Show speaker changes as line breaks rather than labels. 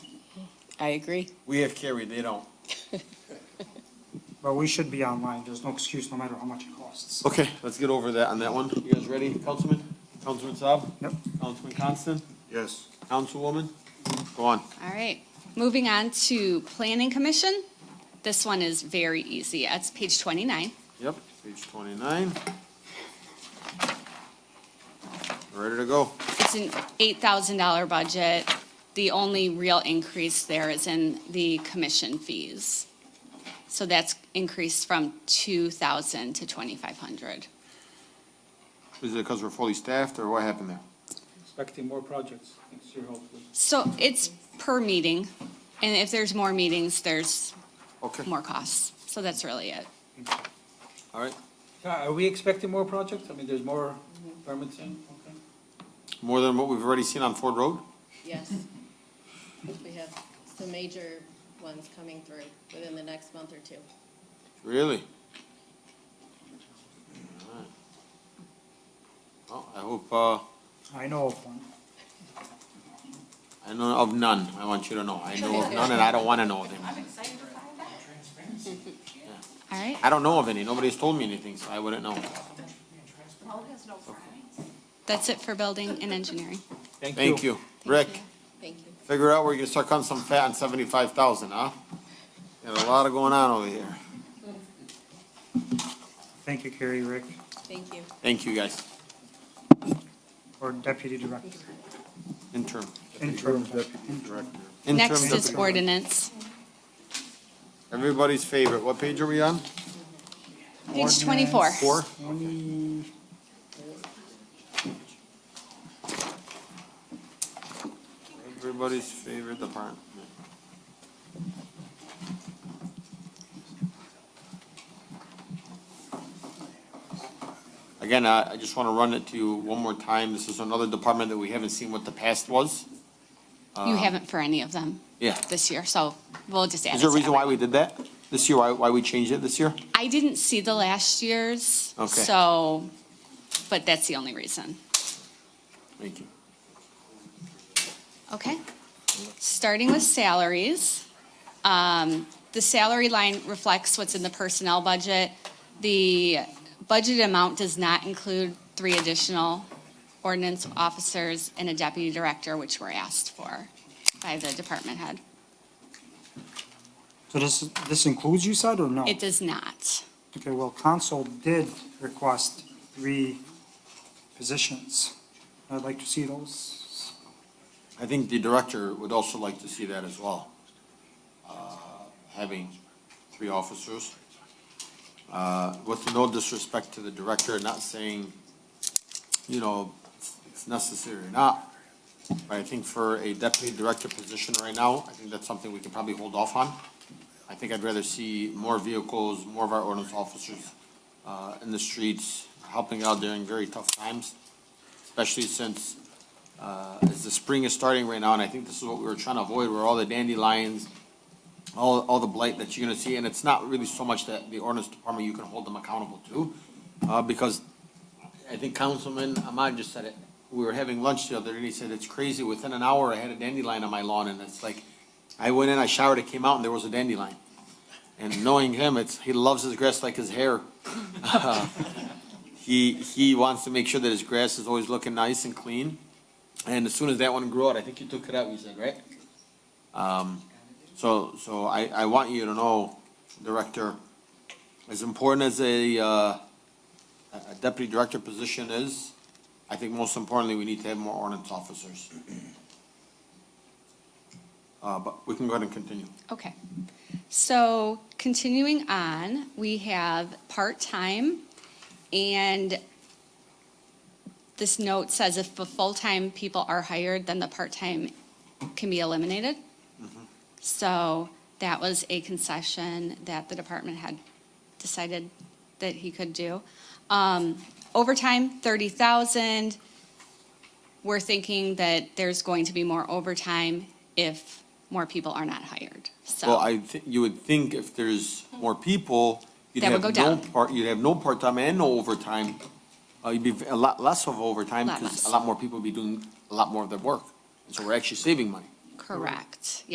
I agree.
We have carried, they don't.
But we should be online, there's no excuse, no matter how much it costs.
Okay, let's get over that on that one. You guys ready, Councilman? Councilman Saab?
Yep.
Councilman Constant?
Yes.
Councilwoman? Go on.
All right, moving on to Planning Commission. This one is very easy. That's page 29.
Yep, page twenty-nine. Ready to go.
It's an $8,000 budget. The only real increase there is in the commission fees. So that's increased from 2,000 to 2,500.
Is it because we're fully staffed or what happened there?
expecting more projects next year, hopefully.
So it's per meeting, and if there's more meetings, there's
Okay,
more costs. So that's really it.
all right.
Yeah, Are we expecting more projects? I mean, there's more permits in, okay?
More than what we've already seen on Ford Road?
Yes. We have some major ones coming through within the next month or two.
Really? All right. Well, I hope, uh,
I know of one.
I know of none. I want you to know. I know of none and I don't want to know of them.
All right?
I don't know of any. Nobody's told me anything, so I wouldn't know.
That's it for building and engineering.
Thank you. Rick,
Thank you.
figure out where you can start cutting some fat on seventy-five thousand, huh? Got a lot of going on over here.
Thank you, Carrie, Rick,
Thank you.
Thank you, guys.
or Deputy Director,
Interim.
interim.
Interim
Next is
deputy.
ordinance.
Everybody's favorite. What page are we on?
Page 24.
Four? Everybody's favorite department. Again, I, I just wanna run it to you one more time. This is another department that we haven't seen what the past was.
You haven't for any of them
Um, Yeah.
this year, so we'll just add it
Is there a
to
reason why we
everyone.
did that? This year, why, why we changed it this year?
I didn't see the last year's,
Okay.
so, but that's the only reason.
Thank you.
Okay. Starting with salaries, um, the salary line reflects what's in the personnel budget. The budget amount does not include three additional ordinance officers and a deputy director, which were asked for by the department head.
So this, this includes you said, or no?
It does not.
Okay, well, council did request three positions. I'd like to see those.
I think the director would also like to see that as well, uh, having three officers. Uh, With no disrespect to the director, not saying, you know, it's- it's necessary or not, but I think for a deputy director position right now, I think that's something we can probably hold off on. I think I'd rather see more vehicles, more of our ordinance officers uh, in the streets, helping out during very tough times, especially since uh, as the spring is starting right now, and I think this is what we were trying to avoid, where all the dandelions, all, all the blight that you're gonna see, and it's not really so much that the ordinance department, you can hold them accountable to, uh, because I think Councilman Ahmad just said it, we were having lunch the other day, and he said, it's crazy, within an hour, I had a dandelion on my lawn, and it's like, I went in, I showered, it came out, and there was a dandelion. And knowing him, it's, he loves his grass like his hair. He, he wants to make sure that his grass is always looking nice and clean. And as soon as that one grew out, I think you took it out, you said, right? Um, so, so I, I want you to know, Director, as important as a, uh, a a deputy director position is, I think most importantly, we need to have more ordinance officers. Uh, but we can go ahead and continue.
Okay. So continuing on, we have part-time and this note says if the full-time people are hired, then the part-time can be eliminated.
Mm-hmm.
So that was a concession that the department had decided that he could do. Um, overtime, thirty thousand. We're thinking that there's going to be more overtime if more people are not hired, so.
Well, I thi- you would think if there's more people, you'd
That would
have
go
no
down.
part, you'd have no part-time and no overtime. Uh, you'd be v- a lot less of overtime
Lot
because a
less.
lot more people would be doing a lot more of their work. And so we're actually saving money.
Correct,